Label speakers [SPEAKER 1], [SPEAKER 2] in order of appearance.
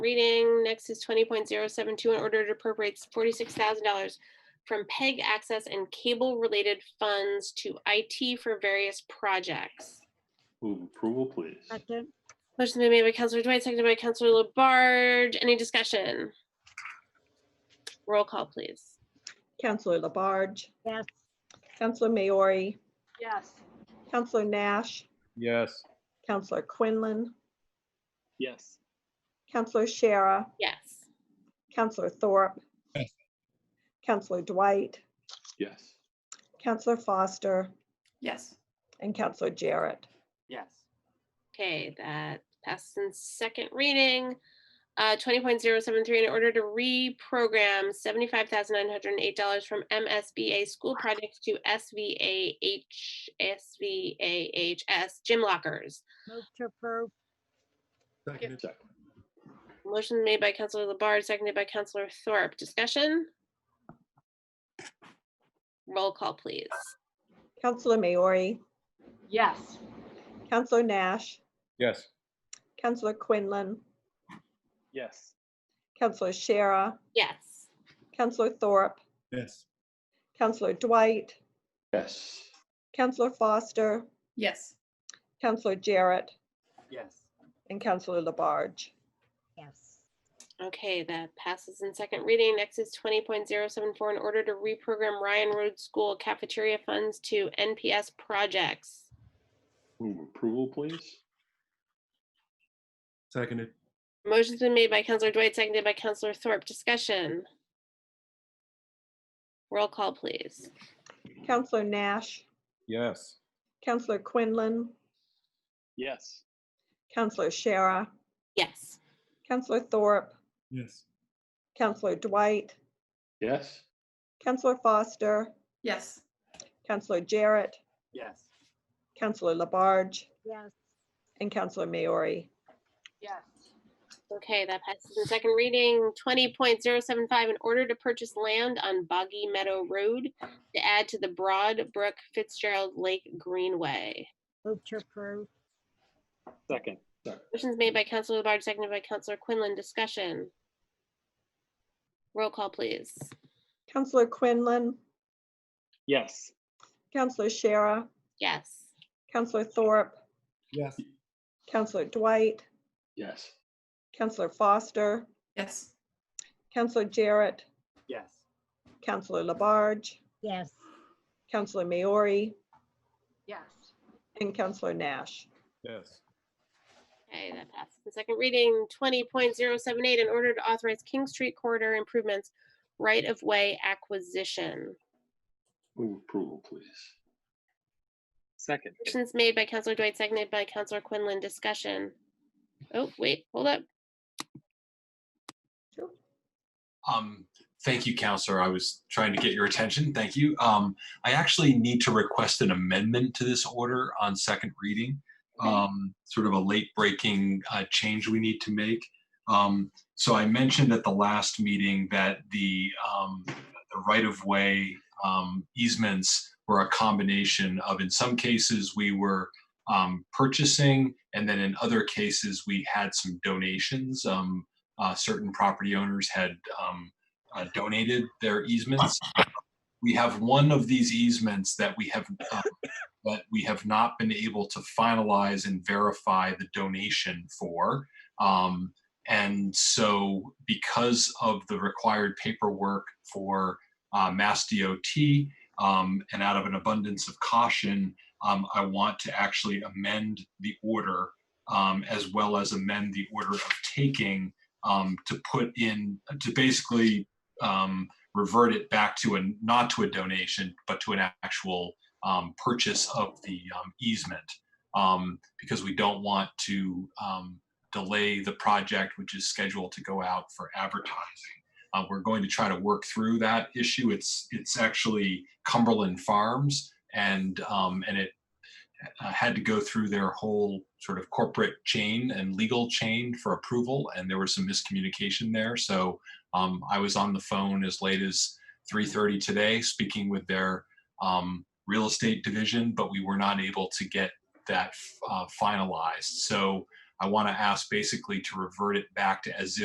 [SPEAKER 1] reading. Next is twenty point zero seven two, in order to appropriate forty-six thousand dollars from PEG access and cable-related funds to IT for various projects.
[SPEAKER 2] Move approval, please.
[SPEAKER 3] Second.
[SPEAKER 1] Motion's been made by Counselor Dwight, seconded by Counselor Labarge. Any discussion? Roll call, please.
[SPEAKER 4] Counselor Labarge,
[SPEAKER 3] Yes.
[SPEAKER 4] Counselor Maori,
[SPEAKER 3] Yes.
[SPEAKER 4] Counselor Nash,
[SPEAKER 5] Yes.
[SPEAKER 4] Counselor Quinlan,
[SPEAKER 5] Yes.
[SPEAKER 4] Counselor Shara,
[SPEAKER 1] Yes.
[SPEAKER 4] Counselor Thorpe,
[SPEAKER 5] Yes.
[SPEAKER 4] Counselor Dwight,
[SPEAKER 2] Yes.
[SPEAKER 4] Counselor Foster,
[SPEAKER 6] Yes.
[SPEAKER 4] and Counselor Jarrett.
[SPEAKER 6] Yes.
[SPEAKER 1] Okay, that passes in second reading. Uh, twenty point zero seven three, in order to reprogram seventy-five thousand nine hundred and eight dollars from MSBA school projects to SVAH, SVAHS gym lockers.
[SPEAKER 3] Move to approve.
[SPEAKER 2] Second.
[SPEAKER 1] Motion made by Counselor Labarge, seconded by Counselor Thorpe. Discussion? Roll call, please.
[SPEAKER 4] Counselor Maori,
[SPEAKER 6] Yes.
[SPEAKER 4] Counselor Nash,
[SPEAKER 5] Yes.
[SPEAKER 4] Counselor Quinlan,
[SPEAKER 5] Yes.
[SPEAKER 4] Counselor Shara,
[SPEAKER 1] Yes.
[SPEAKER 4] Counselor Thorpe,
[SPEAKER 5] Yes.
[SPEAKER 4] Counselor Dwight,
[SPEAKER 2] Yes.
[SPEAKER 4] Counselor Foster,
[SPEAKER 6] Yes.
[SPEAKER 4] Counselor Jarrett,
[SPEAKER 6] Yes.
[SPEAKER 4] and Counselor Labarge.
[SPEAKER 3] Yes.
[SPEAKER 1] Okay, that passes in second reading. Next is twenty point zero seven four, in order to reprogram Ryan Road School cafeteria funds to NPS projects.
[SPEAKER 2] Move approval, please.
[SPEAKER 5] Seconded.
[SPEAKER 1] Motion's been made by Counselor Dwight, seconded by Counselor Thorpe. Discussion. Roll call, please.
[SPEAKER 4] Counselor Nash,
[SPEAKER 5] Yes.
[SPEAKER 4] Counselor Quinlan,
[SPEAKER 5] Yes.
[SPEAKER 4] Counselor Shara,
[SPEAKER 1] Yes.
[SPEAKER 4] Counselor Thorpe,
[SPEAKER 5] Yes.
[SPEAKER 4] Counselor Dwight,
[SPEAKER 2] Yes.
[SPEAKER 4] Counselor Foster,
[SPEAKER 6] Yes.
[SPEAKER 4] Counselor Jarrett,
[SPEAKER 6] Yes.
[SPEAKER 4] Counselor Labarge,
[SPEAKER 3] Yes.
[SPEAKER 4] and Counselor Maori.
[SPEAKER 6] Yes.
[SPEAKER 1] Okay, that passes in second reading. Twenty point zero seven five, in order to purchase land on Boggy Meadow Road to add to the Broad Brook Fitzgerald Lake Greenway.
[SPEAKER 3] Move to approve.
[SPEAKER 5] Second.
[SPEAKER 1] Motion's made by Counselor Labarge, seconded by Counselor Quinlan. Discussion. Roll call, please.
[SPEAKER 4] Counselor Quinlan,
[SPEAKER 5] Yes.
[SPEAKER 4] Counselor Shara,
[SPEAKER 1] Yes.
[SPEAKER 4] Counselor Thorpe,
[SPEAKER 5] Yes.
[SPEAKER 4] Counselor Dwight,
[SPEAKER 2] Yes.
[SPEAKER 4] Counselor Foster,
[SPEAKER 6] Yes.
[SPEAKER 4] Counselor Jarrett,
[SPEAKER 6] Yes.
[SPEAKER 4] Counselor Labarge,
[SPEAKER 3] Yes.
[SPEAKER 4] Counselor Maori,
[SPEAKER 6] Yes.
[SPEAKER 4] and Counselor Nash.
[SPEAKER 5] Yes.
[SPEAKER 1] Okay, that passes. The second reading, twenty point zero seven eight, in order to authorize King Street corridor improvements, right-of-way acquisition.
[SPEAKER 2] Move approval, please.
[SPEAKER 5] Second.
[SPEAKER 1] Motion's made by Counselor Dwight, seconded by Counselor Quinlan. Discussion. Oh, wait, hold up.
[SPEAKER 7] Um, thank you, Counselor. I was trying to get your attention. Thank you. Um, I actually need to request an amendment to this order on second reading. Um, sort of a late breaking uh, change we need to make. Um, so I mentioned at the last meeting that the, um, the right of way um, easements were a combination of, in some cases, we were um, purchasing, and then in other cases, we had some donations. Um, uh, certain property owners had um, uh, donated their easements. We have one of these easements that we have um, that we have not been able to finalize and verify the donation for. Um, and so, because of the required paperwork for uh, Mass DOT, um, and out of an abundance of caution, um, I want to actually amend the order um, as well as amend the order of taking um, to put in to basically um, revert it back to a not to a donation but to an actual um, purchase of the um, easement um, because we don't want to um, delay the project which is scheduled to go out for advertising uh, we're going to try to work through that issue it's it's actually cumberland farms and um, and it uh, had to go through their whole sort of corporate chain and legal chain for approval, and there was some miscommunication there. So um, I was on the phone as late as 3:30 today, speaking with their um, real estate division, but we were not able to get that uh, finalized. So I want to ask basically to revert it back to as if.